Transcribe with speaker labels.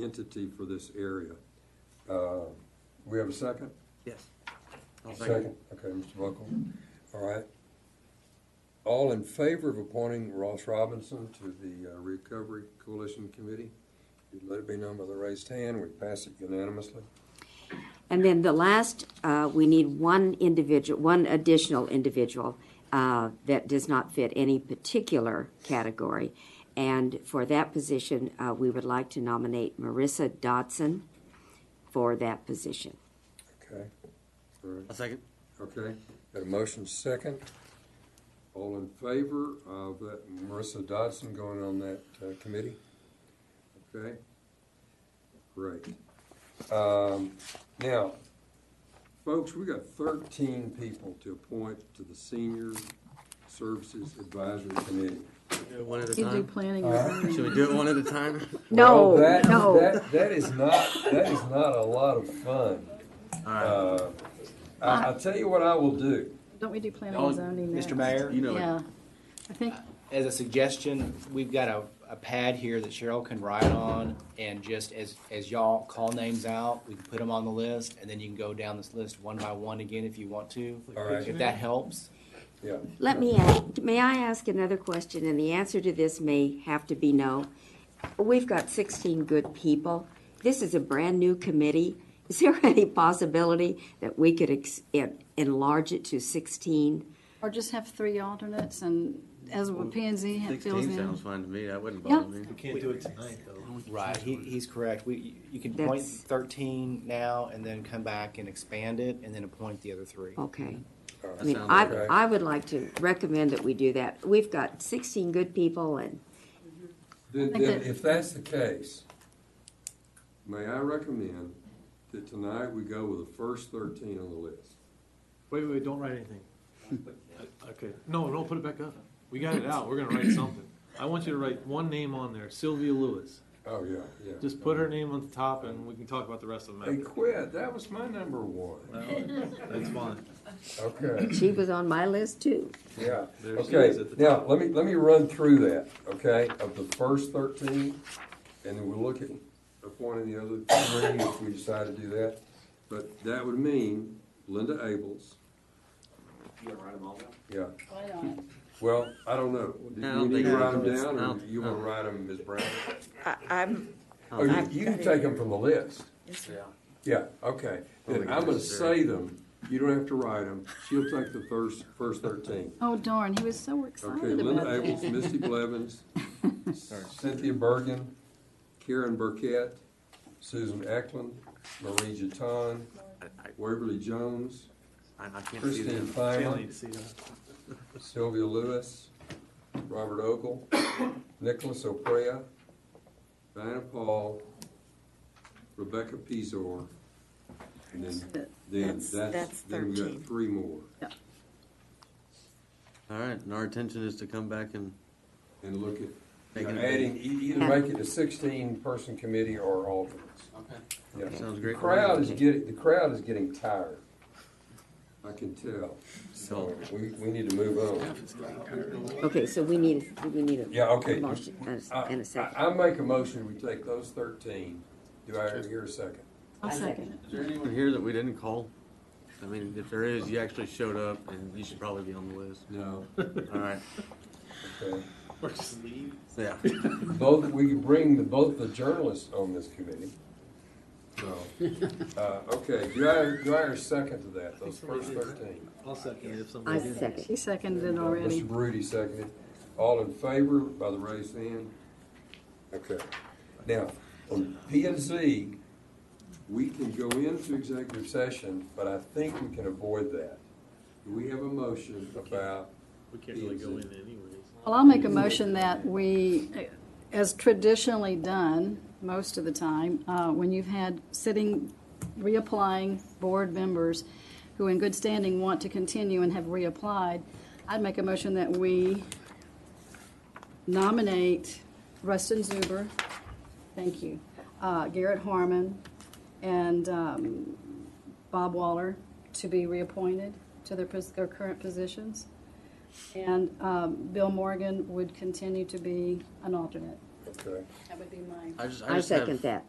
Speaker 1: entity for this area. Uh, We have a second?
Speaker 2: Yes.
Speaker 1: Okay, Mr. Buckle, all right. All in favor of appointing Ross Robinson to the uh, Recovery Coalition Committee? If you'd let it be known by the raised hand, we pass it unanimously.
Speaker 3: And then the last, uh, we need one individual, one additional individual uh, that does not fit any particular category. And for that position, uh, we would like to nominate Marissa Dodson for that position.
Speaker 1: Okay, all right,
Speaker 2: A second?
Speaker 1: okay. Got a motion second. All in favor of uh, Marissa Dodson going on that uh, committee? Okay, great. Um, Now, folks, we got thirteen people to appoint to the Senior Services Advisory Committee.
Speaker 2: Do it one at a
Speaker 4: You do
Speaker 2: time?
Speaker 4: planning.
Speaker 1: All right.
Speaker 4: and zoning.
Speaker 2: Should we do it one at a time?
Speaker 3: No,
Speaker 1: Well, that-
Speaker 3: no.
Speaker 1: that- That is not, that is not a lot of fun. Uh, I, I'll tell you what I will do.
Speaker 4: Don't we do planning
Speaker 2: Oh,
Speaker 5: Y'all-
Speaker 4: and zoning next?
Speaker 5: Mr. Mayor,
Speaker 2: You know,
Speaker 4: Yeah,
Speaker 2: it.
Speaker 4: I think,
Speaker 5: as a suggestion, we've got a, a pad here that Cheryl can write on, and just as, as y'all call names out, we can put them on the list, and then you can go down this list one by one again if you want to.
Speaker 1: All right.
Speaker 5: If that helps.
Speaker 1: Yeah.
Speaker 3: Let me ask, may I ask another question? And the answer to this may have to be no. We've got 16 good people. This is a brand-new committee. Is there any possibility that we could ex- en- enlarge it to 16?
Speaker 4: or just have three alternates and as with P and Z fills
Speaker 2: Sixteen sounds
Speaker 4: in.
Speaker 2: fine to me, that wouldn't
Speaker 4: Yeah.
Speaker 2: bother me.
Speaker 6: Can't do it tonight, though.
Speaker 5: Right, he, he's correct. We, you can appoint
Speaker 3: That's-
Speaker 5: thirteen now, and then come back and expand it, and then appoint the other three.
Speaker 3: Okay. I
Speaker 2: That
Speaker 3: mean,
Speaker 2: sounds
Speaker 3: I,
Speaker 1: okay.
Speaker 3: I would like to recommend that we do that. We've got 16 good people and,
Speaker 1: Then,
Speaker 4: think
Speaker 1: then
Speaker 4: that-
Speaker 1: if that's the case, may I recommend that tonight we go with the first thirteen on the list?
Speaker 6: Wait, wait, wait, don't write anything. Okay, no, don't put it back up. We got it out, we're gonna write something. I want you to write one name on there, Sylvia Lewis.
Speaker 1: Oh, yeah, yeah.
Speaker 6: Just put her name on the top and we can talk about the rest of them
Speaker 1: They
Speaker 6: after.
Speaker 1: quit, that was my number one.
Speaker 6: That's fine.
Speaker 1: Okay.
Speaker 3: she was on my list too.
Speaker 1: Yeah,
Speaker 6: There she
Speaker 1: okay,
Speaker 6: is at the
Speaker 1: now, let me, let me run through that, okay, of the first thirteen, and then we'll look at appointing the other three if we decide to do that. But that would mean Linda Abels,
Speaker 5: You wanna write them all down?
Speaker 1: yeah,
Speaker 4: Why not?
Speaker 1: well, I don't know,
Speaker 2: I
Speaker 1: do
Speaker 2: don't
Speaker 1: you need
Speaker 2: think
Speaker 1: to
Speaker 2: I
Speaker 1: write
Speaker 2: can
Speaker 1: them
Speaker 2: just- I
Speaker 1: down, or
Speaker 2: don't-
Speaker 1: you wanna write them, Ms. Brown?
Speaker 7: I'm,
Speaker 1: Oh, you, you can take them from the list,
Speaker 5: Yeah.
Speaker 1: yeah, okay, then I'm gonna say them, you don't have to write them, she'll take the first, first thirteen.
Speaker 4: Oh darn, he was so
Speaker 1: Okay,
Speaker 4: excited
Speaker 1: Linda
Speaker 4: about that.
Speaker 1: Abels, Misty Blevins, Cynthia Bergen, Karen Burkett, Susan Eklund, Marie Jeton,
Speaker 2: I-
Speaker 1: Waverly Jones,
Speaker 2: I, I can't see
Speaker 1: Christine
Speaker 2: them.
Speaker 6: Can't
Speaker 1: Feinley,
Speaker 6: need to see that.
Speaker 1: Sylvia Lewis, Robert Ogle, Nicholas Oprea, Diana Paul, Rebecca Pizor, and then, then
Speaker 7: That's-
Speaker 1: that's,
Speaker 7: that's
Speaker 1: then we got
Speaker 7: 13.
Speaker 1: three more.
Speaker 2: All right, and our intention is to come back and,
Speaker 1: And look at,
Speaker 2: Make it a-
Speaker 1: adding, e- either make it a sixteen-person committee or alternates.
Speaker 2: okay,
Speaker 1: Yeah.
Speaker 2: sounds
Speaker 1: The
Speaker 2: great.
Speaker 1: crowd is getting, the crowd is getting tired. I can tell.
Speaker 2: So,
Speaker 1: We, we need to move on.
Speaker 3: Okay, so we need, we need a.
Speaker 1: Yeah, okay. Uh,
Speaker 3: a Motion and a-
Speaker 1: I,
Speaker 3: and a second.
Speaker 1: I I make a motion, we take those thirteen. Do I hear a second?
Speaker 4: I'll second it.
Speaker 2: is there anyone here that we didn't call? I mean, if there is, you actually showed up, and you should probably be on the list.
Speaker 1: No.
Speaker 2: All right,
Speaker 1: Okay.
Speaker 6: Or just leave.
Speaker 2: yeah.
Speaker 1: Both, we can bring the, both the journalists on this committee. So, uh, okay, do I, do I hear a second to that, those first thirteen?
Speaker 6: I'll second it if
Speaker 3: I
Speaker 6: somebody did.
Speaker 3: second.
Speaker 4: He seconded it already.
Speaker 1: Mr. Rudy seconded. All in favor by the raised hand? Okay. Now, on P and Z, we can go into executive session, but I think we can avoid that. Do we have a motion about,
Speaker 6: We can't really go in anyways.
Speaker 4: Well, I'll make a motion that we, as traditionally done, most of the time, uh, when you've had sitting, reapplying board members who in good standing want to continue and have reapplied, I'd make a motion that we nominate Rustin Zuber, thank you, uh, Garrett Harmon, and um, Bob Waller to be reappointed to their pos- their current positions. And um, Bill Morgan would continue to be an alternate.
Speaker 1: okay,
Speaker 4: That would be my.
Speaker 2: I just, I
Speaker 3: I
Speaker 2: just have-
Speaker 3: second that.